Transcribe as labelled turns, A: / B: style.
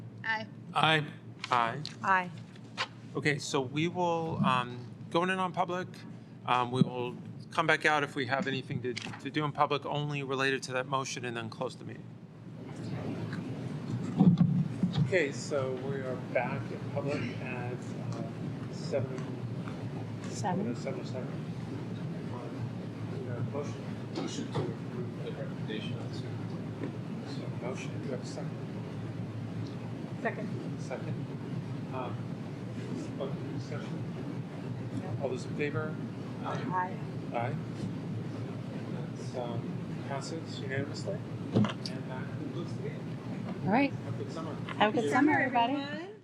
A: Aye.
B: Aye.
C: Aye.
A: Aye.
C: Okay, so we will um, go in a non-public. Um, We will come back out if we have anything to to do in public only related to that motion and then close the meeting. Okay, so we are back in public at uh, seven,
A: Seven.
C: seven or seven. We have a Motion,
D: Motion to approve the recommendation of the superintendent.
C: so motion, do you have a second?
A: Second.
C: Second. Um, Open discussion. All those in favor?
A: Aye.
C: Aye. That's, um, passes unanimously. And that concludes the meeting.
A: All right.
C: Have a good summer.
A: Have a good summer, everybody.
E: everyone.